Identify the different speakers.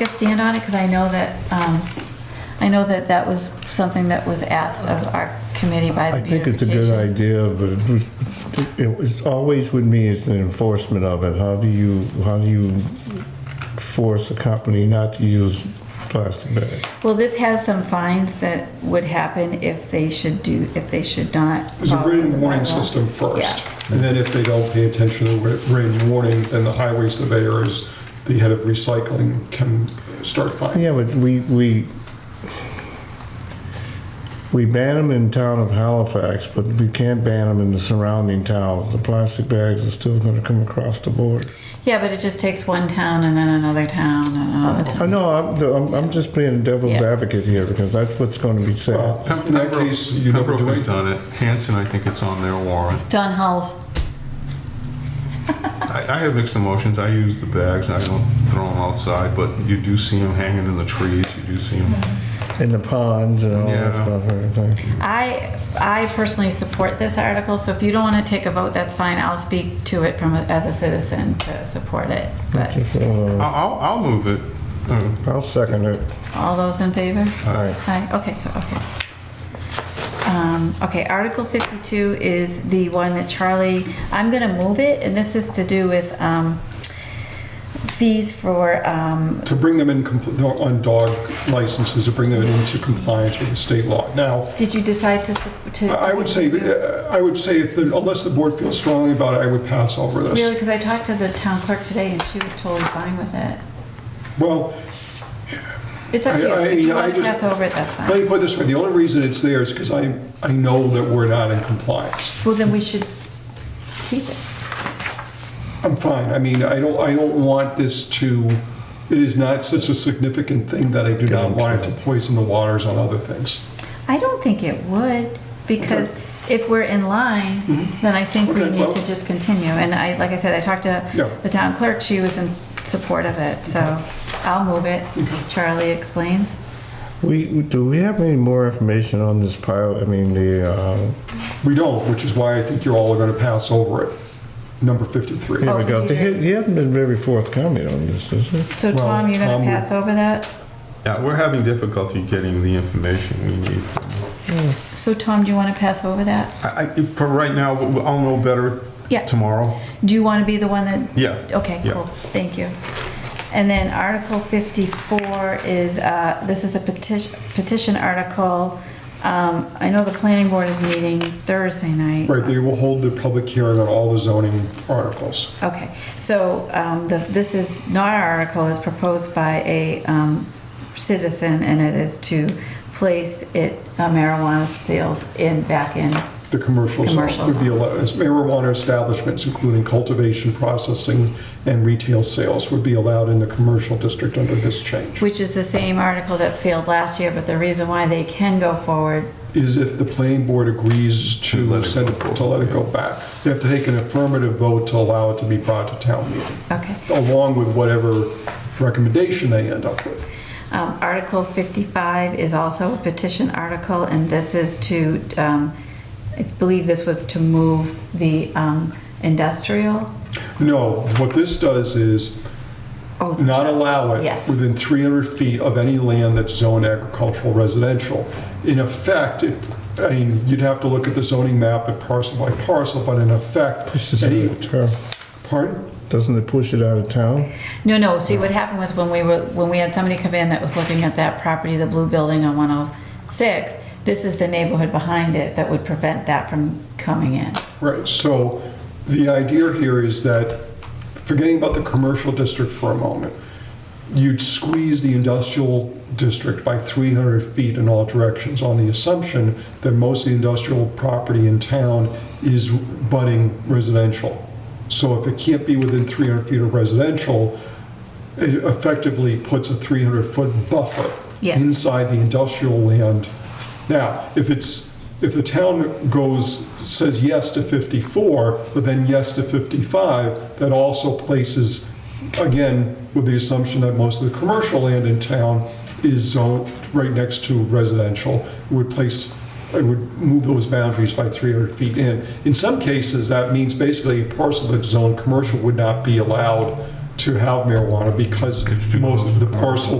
Speaker 1: a stand on it, because I know that, um, I know that that was something that was asked of our committee by the
Speaker 2: I think it's a
Speaker 1: beautification.
Speaker 2: good idea, but it was, it was always with me is the enforcement of it. How do you, how do you force a company not to use plastic bags?
Speaker 1: Well, this has some fines that would happen if they should do, if they should not.
Speaker 3: There's a
Speaker 1: follow the
Speaker 3: rain warning
Speaker 1: bylaw.
Speaker 3: system first,
Speaker 1: Um, Yeah.
Speaker 3: and then if they don't pay attention to the ra- rain warning, then the highway surveyor is the head of recycling can start finding.
Speaker 2: Yeah, but we, we, we ban them in town of Halifax, but we can't ban them in the surrounding towns. The plastic bags are still gonna come across the border.
Speaker 1: Yeah, but it just takes one town and then another town and another town.
Speaker 2: I know, I'm, I'm- I'm just being devil's
Speaker 1: Yeah.
Speaker 2: advocate here because that's what's gonna be said.
Speaker 3: Well, uh, In that case, you never
Speaker 4: Pembroke
Speaker 3: do
Speaker 4: has
Speaker 3: it.
Speaker 4: done it. Hanson, I think it's on their warrant.
Speaker 1: Don Hulls,
Speaker 4: I, I have mixed emotions. I use the bags. I don't throw them outside, but you do see them hanging in the trees. You do see them.
Speaker 2: In the ponds and all that
Speaker 4: Yeah.
Speaker 2: stuff, everything.
Speaker 1: I, I personally support this article, so if you don't want to take a vote, that's fine. I'll speak to it from, a- as a citizen to support it. But
Speaker 2: Just, uh,
Speaker 4: I'll, I'll move it. Uh,
Speaker 2: I'll second it.
Speaker 1: all those in favor?
Speaker 2: Aye.
Speaker 1: Hi, okay, so, okay. Um, Okay, Article 52 is the one that Charlie, I'm gonna move it, and this is to do with um, fees for, um,
Speaker 3: To bring them in, compl- no, on dog licenses, to bring them into compliance with the state law. Now,
Speaker 1: did you decide to? to-
Speaker 3: I I would say, uh, I would say if, the- unless the board feels strongly about it, I would pass over
Speaker 1: Really,
Speaker 3: this.
Speaker 1: because I talked to the town clerk today, and she was totally fine with it.
Speaker 3: Well,
Speaker 1: It's up to you,
Speaker 3: I- I-
Speaker 1: if you
Speaker 3: I
Speaker 1: want to
Speaker 3: just-
Speaker 1: pass over it, that's
Speaker 3: let
Speaker 1: fine.
Speaker 3: me put it this way, the only reason it's there is because I, I know that we're not in compliance.
Speaker 1: Well, then we should keep it.
Speaker 3: I'm fine. I mean, I don't, I don't want this to, it is not such a significant thing that I do not want it to poison the waters on other things.
Speaker 1: I don't think it would, because if we're in line, then I think we
Speaker 3: Mm-hmm. Okay,
Speaker 1: need to
Speaker 3: well-
Speaker 1: just continue. And I, like I said, I talked
Speaker 3: Yeah.
Speaker 1: to the town clerk, she was in support of it, so I'll move it. Charlie explains.
Speaker 2: We, do we have any more information on this pilot? I mean, the, uh,
Speaker 3: We don't, which is why I think you're all going to pass over it. Number 53.
Speaker 2: here we go.
Speaker 1: did you-
Speaker 2: He he hasn't been very forthcoming on this, is he?
Speaker 1: So
Speaker 3: Well,
Speaker 1: Tom, you're
Speaker 3: Tom
Speaker 1: gonna
Speaker 3: would-
Speaker 1: pass over that?
Speaker 4: Yeah, we're having difficulty getting the information we need.
Speaker 1: So Tom, do you wanna pass over that?
Speaker 4: I, I, for right now, we- we- I'll know better
Speaker 1: Yeah,
Speaker 4: tomorrow.
Speaker 1: do you wanna be the one that?
Speaker 4: Yeah.
Speaker 1: Okay,
Speaker 4: Yeah.
Speaker 1: cool, thank you. And then Article 54 is, uh, this is a petition, petition article. Um, I know the planning board is meeting Thursday night.
Speaker 3: Right, they will hold the public hearing on all the zoning articles.
Speaker 1: Okay, so um, the- this is not our article, it's proposed by a um, citizen, and it is to place it uh, marijuana sales in, back in.
Speaker 3: The commercial
Speaker 1: Commercial
Speaker 3: zone would be
Speaker 1: zone.
Speaker 3: allowed, marijuana establishments, including cultivation, processing, and retail sales would be allowed in the commercial district under this change.
Speaker 1: Which is the same article that failed last year, but the reason why they can go forward,
Speaker 3: is if the planning board agrees
Speaker 4: To let
Speaker 3: to
Speaker 4: it
Speaker 3: send,
Speaker 4: go forward,
Speaker 3: to let it go back. They have to take an affirmative vote to allow it to be brought to town meeting,
Speaker 1: okay.
Speaker 3: along with whatever recommendation they end up with.
Speaker 1: Um, Article 55 is also a petition article, and this is to, um, I believe this was to move the um, industrial.
Speaker 3: No, what this does is
Speaker 1: Oh, the
Speaker 3: not allow it
Speaker 1: Yes.
Speaker 3: within 300 feet of any land that's zoned agricultural residential. In effect, it- I mean, you'd have to look at the zoning map at parcel by parcel, but in effect,
Speaker 2: Pushes it
Speaker 3: any,
Speaker 2: out of town.
Speaker 3: pardon?
Speaker 2: Doesn't it push it out of town?
Speaker 1: No, no, see, what happened was when we were, when we had somebody come in that was looking at that property, the blue building on 106, this is the neighborhood behind it that would prevent that from coming in.
Speaker 3: Right, so the idea here is that, forgetting about the commercial district for a moment, you'd squeeze the industrial district by 300 feet in all directions on the assumption that most of the industrial property in town is budding residential. So if it can't be within 300 feet of residential, it effectively puts a 300-foot buffer
Speaker 1: Yes.
Speaker 3: inside the industrial land. Now, if it's, if the town goes, says yes to 54, but then yes to 55, that also places, again, with the assumption that most of the commercial land in town is zoned right next to residential, It would place, it would move those boundaries by 300 feet in. In some cases, that means basically a parcel that's zoned commercial would not be allowed
Speaker 5: to have marijuana because
Speaker 3: It's too
Speaker 5: most
Speaker 3: close
Speaker 5: of the
Speaker 3: to commercial.
Speaker 5: parcel